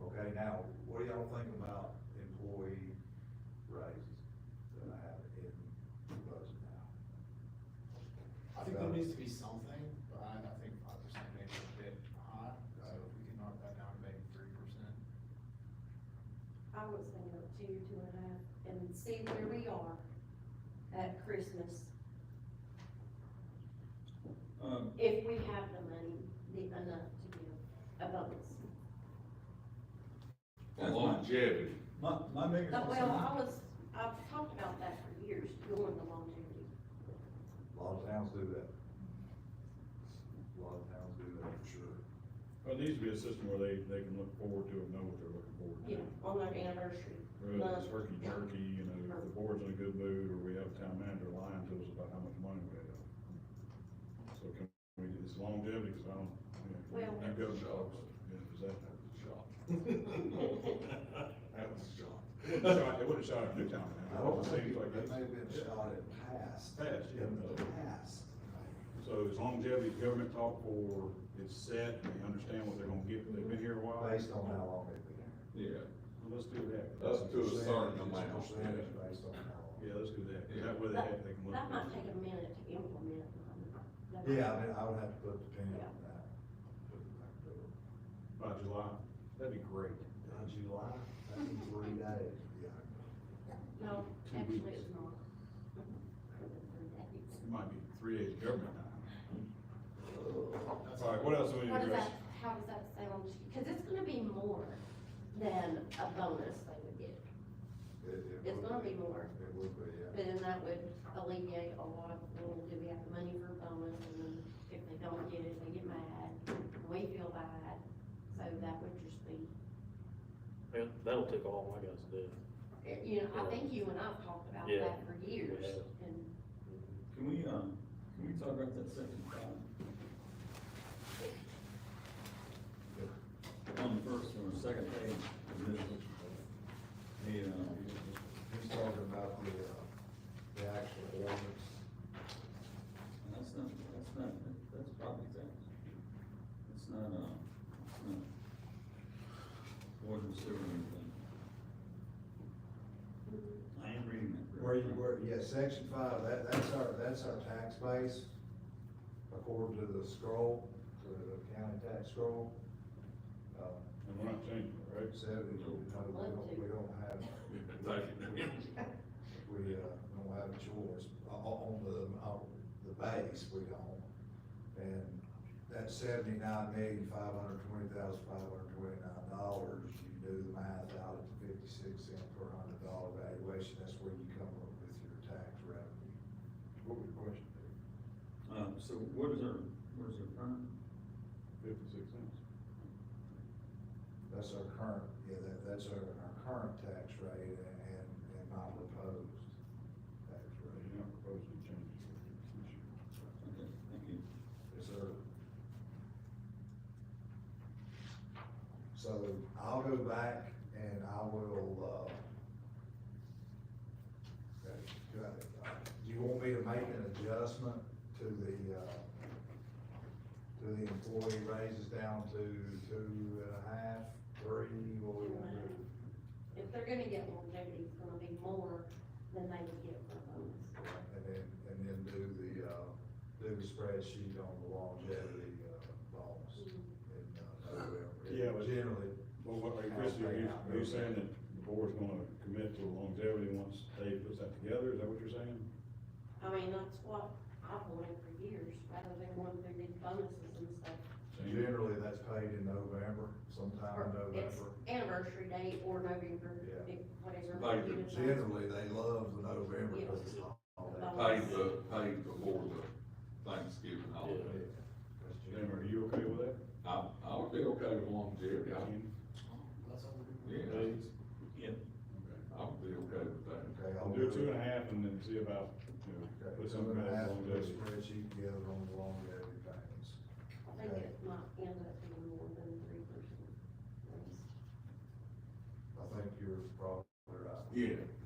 right now, what do y'all think about employee raises that I have in the budget now? I think there needs to be something, but I, I think five percent may be a bit high, so if we can knock that down to maybe three percent. I was thinking of two, two and a half, and see where we are at Christmas, Um, if we have the money, the, enough to give a bonus. For longevity, My, my biggest But, well, concern, I was, I've talked about that for years, doing the longevity. a lot of towns do that. A lot of towns do that for sure. Well, it needs to be a system where they, they can look forward to and know what they're looking forward to. Yeah, on our anniversary. Rather than turkey jerky, you know, if the board's in a good mood, or we have a town manager lying to us about how much money we have. So can we, it's longevity, cause I don't, you know, Well- you go to jobs, you know, is that, that was a shock. That was a shock. Shock, It wouldn't shock you, town I manager, don't it think seems like it it's. may have been shot at past. Past, yeah. In the past. So it's longevity, government talk for, it's set, and they understand what they're gonna get, they've been here a while. Based on how long they've been there. yeah, Well, Let's do that. That's To a good. certain Percentage, amount, it's percentage Based on how long. Yeah, let's do that, 'cause Yeah. that way they have, they can look. That at might it. take a minute to implement. but- Yeah, I mean, I would have to put the pin on that. By July, that'd be great. In July, that'd be three days. Yeah. No, Two actually, weeks. it's not. Mm-hmm. It might be three days government time. That's All right, what else do we need How to does address? that, how does that sound? Because it's gonna be more than a bonus they would get. It- it It's would gonna be more. It would be, yeah. But then that would alleviate a lot, of well, do we have the money for a bonus, and then if they don't get it, they get mad, we feel bad, so that would just be, Yeah, that'll take all my guys to do. eh, you know, I think you and I have talked about Yeah. that for years, and Can we, um, can we talk about that second column? On the first one, second page, this is the, uh, He's talking about the, uh, the actual ordinance. that's not, that's not, that's property tax. It's not, uh, it's not water and sewer or anything. I am reading that. correctly. Where you, where, yeah, section five, that, that's our, that's our tax base, according to the scroll, to the county tax scroll. Uh, And we're not changing it, right? seven, you know, we don't, we don't have, we, uh, don't have a choice, o- o- on the, on the base, we don't. And that seventy-nine million, five hundred twenty thousand, five hundred twenty-nine dollars, you do the math out at the fifty-six cent per hundred dollar valuation, that's where you come up with your tax revenue. What was your question? Uh, so what is our, what is our current? Fifty-six cents. That's our current, yeah, that, that's our, our current tax rate and, and my proposed tax Right, rate. you're not proposing changes. Okay, thank you. Yes, sir. So I'll go back and I will, uh, okay, do I- uh, do you want me to make an adjustment to the, uh, to the employee raises down to two and a half, three, what we want to do? if they're gonna get longevity, it's gonna be more than they would get for a bonus. And then, and then do the, uh, do the spreadsheet on the longevity, uh, bonus in, uh, November. Yeah, but- Generally, Well, what, like, Chris, are you, are you saying that the board's gonna commit to longevity once Dave puts that together, is that what you're saying? I mean, that's what I've wanted for years, rather than going through these bonuses and stuff. Change it? Generally, that's paid in November, sometime in Or it's November. Anniversary date or November, Yeah. whatever. Like the you decide. Generally, they love the November because it's all that. Paid the, paid before the Thanksgiving holiday. Yeah, that's Jim, generally- are you okay with that? I, I would be okay with longevity, I, Ken? yeah, Dave? Okay. I would be okay with that. Okay, I'll I'll do two and a half and then see about, you know, Okay, put two something and a about half, put a longevity. spreadsheet together on the longevity payments. I think it might end up being more than three percent. I think you're probably right. Yeah, uh,